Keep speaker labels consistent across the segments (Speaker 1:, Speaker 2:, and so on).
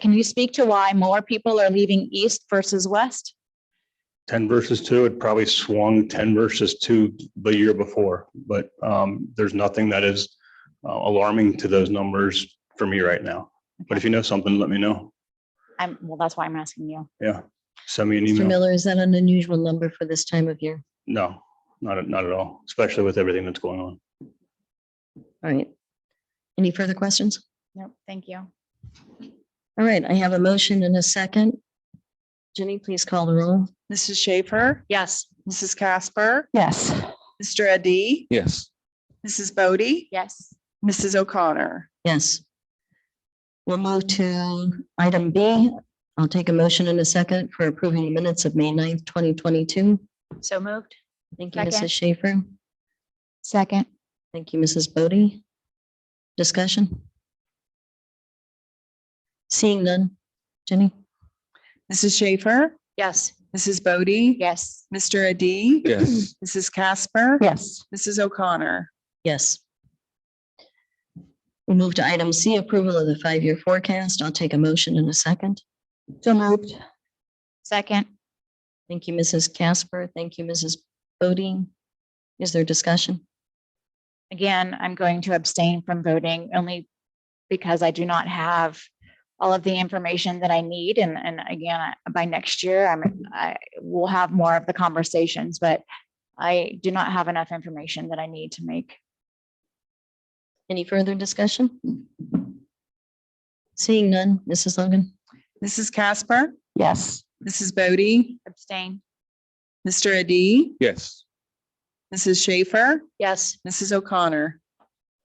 Speaker 1: Can you speak to why more people are leaving east versus west?
Speaker 2: ten versus two, it probably swung ten versus two the year before, but um, there's nothing that is uh, alarming to those numbers for me right now. But if you know something, let me know.
Speaker 1: I'm, well, that's why I'm asking you.
Speaker 2: Yeah, send me an
Speaker 3: Mr.
Speaker 2: email.
Speaker 3: Miller, is that an unusual number for this time of year?
Speaker 2: No, not, at- not at all, especially with everything that's going on.
Speaker 3: All right. Any further questions?
Speaker 1: No, thank you.
Speaker 3: All right, I have a motion and a second. Jenny, please call the roll.
Speaker 4: Mrs. Schaefer,
Speaker 3: Yes.
Speaker 4: Mrs. Casper,
Speaker 1: Yes.
Speaker 4: Mr. Adi,
Speaker 5: Yes,
Speaker 4: Mrs. Bodie,
Speaker 1: Yes.
Speaker 4: Mrs. O'Connor.
Speaker 3: Yes. We'll move to item B. I'll take a motion in a second for approving the minutes of May 9th, twenty twenty-two.
Speaker 1: So moved.
Speaker 3: Thank you,
Speaker 1: Second.
Speaker 3: Mrs. Schaefer.
Speaker 1: Second.
Speaker 3: Thank you, Mrs. Bodie. Discussion? Seeing none. Jenny?
Speaker 4: Mrs. Schaefer,
Speaker 1: Yes.
Speaker 4: Mrs. Bodie.
Speaker 1: Yes.
Speaker 4: Mr. Adi.
Speaker 5: yes,
Speaker 4: Mrs. Casper.
Speaker 1: Yes.
Speaker 4: Mrs. O'Connor.
Speaker 3: Yes. We'll move to item C, approval of the five-year forecast. I'll take a motion in a second.
Speaker 1: So moved. Second.
Speaker 3: Thank you, Mrs. Casper. Thank you, Mrs. Bodine. Is there discussion?
Speaker 1: Again, I'm going to abstain from voting only because I do not have all of the information that I need. And, and again, I- by next year, I'm, I will have more of the conversations, but I do not have enough information that I need to make.
Speaker 3: Any further discussion? Seeing none, Mrs. Logan?
Speaker 4: Mrs. Casper,
Speaker 1: Yes.
Speaker 4: Mrs. Bodie,
Speaker 1: Abstain.
Speaker 4: Mr. Adi,
Speaker 5: yes,
Speaker 4: Mrs. Schaefer,
Speaker 1: Yes.
Speaker 4: Mrs. O'Connor.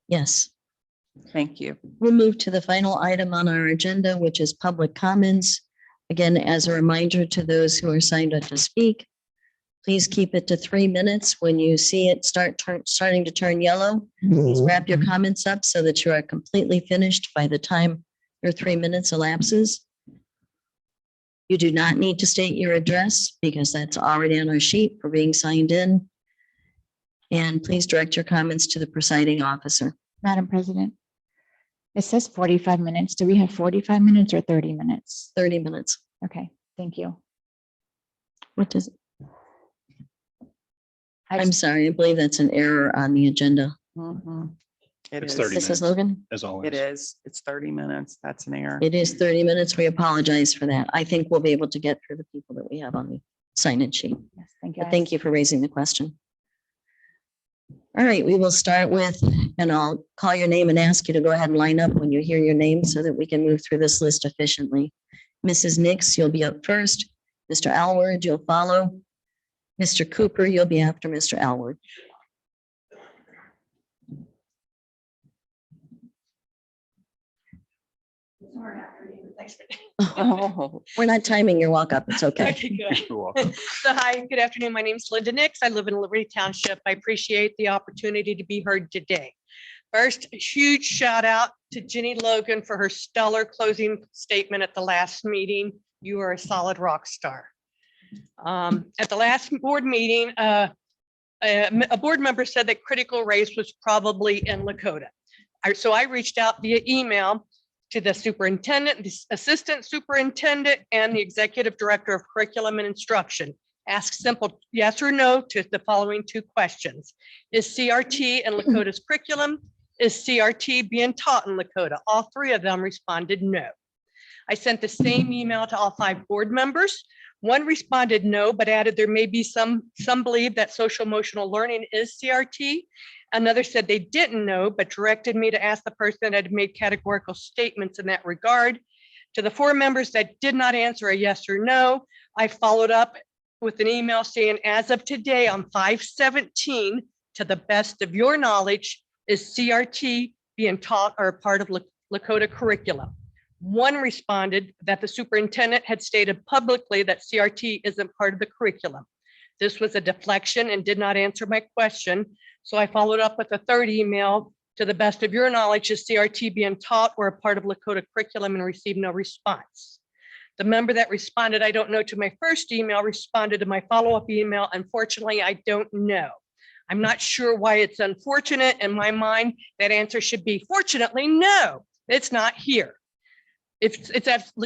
Speaker 3: Yes.
Speaker 4: Thank you.
Speaker 3: We'll move to the final item on our agenda, which is public comments. Again, as a reminder to those who are signed up to speak, please keep it to three minutes. When you see it start turn, starting to turn yellow, please wrap your comments up so that you are completely finished by the time your three minutes elapses. You do not need to state your address because that's already on our sheet for being signed in. And please direct your comments to the presiding officer.
Speaker 1: Madam President, it says forty-five minutes. Do we have forty-five minutes or thirty minutes?
Speaker 3: Thirty minutes.
Speaker 1: Okay, thank you.
Speaker 3: What does,
Speaker 1: I
Speaker 3: I'm
Speaker 1: just-
Speaker 3: sorry, I believe that's an error on the agenda.
Speaker 4: Mhm. It
Speaker 2: It's
Speaker 4: is.
Speaker 2: 30
Speaker 3: Mrs.
Speaker 2: minutes.
Speaker 3: Logan,
Speaker 2: As always.
Speaker 4: It is. It's 30 minutes. That's an error.
Speaker 3: it is 30 minutes. We apologize for that. I think we'll be able to get through the people that we have on the sign-in sheet.
Speaker 1: yes, Thank you.
Speaker 3: But thank you for raising the question. All right, we will start with, and I'll call your name and ask you to go ahead and line up when you hear your name so that we can move through this list efficiently. Mrs. Nix, you'll be up first. Mr. Alward, you'll follow. Mr. Cooper, you'll be after Mr. Alward.
Speaker 4: Oh,
Speaker 3: We're not timing your walk up. It's okay.
Speaker 6: Okay, good.
Speaker 2: You're welcome.
Speaker 6: So hi, good afternoon. My name's Linda Nix. I live in Liberty Township. I appreciate the opportunity to be heard today. First, a huge shout out to Jenny Logan for her stellar closing statement at the last meeting. You are a solid rock star. Um, At the last board meeting, uh, a a board member said that critical race was probably in Lakota. I- So I reached out via email to the superintendent, the assistant superintendent, and the executive director of curriculum and instruction. Ask simple yes or no to the following two questions. Is CRT in Lakota's curriculum? Is CRT being taught in Lakota? All three of them responded no. I sent the same email to all five board members. One responded no, but added there may be some, some believe that social emotional learning is CRT. Another said they didn't know, but directed me to ask the person that had made categorical statements in that regard. To the four members that did not answer a yes or no, I followed up with an email saying, as of today on five seventeen, to the best of your knowledge, is CRT being taught or a part of Lak- Lakota curriculum? One responded that the superintendent had stated publicly that CRT isn't part of the curriculum. This was a deflection and did not answer my question, so I followed up with a third email. To the best of your knowledge, is CRT being taught or a part of Lakota curriculum and received no response? The member that responded, I don't know, to my first email responded to my follow-up email. Unfortunately, I don't know. I'm not sure why it's unfortunate. In my mind, that answer should be fortunately, no, it's not here. It's, it's absolutely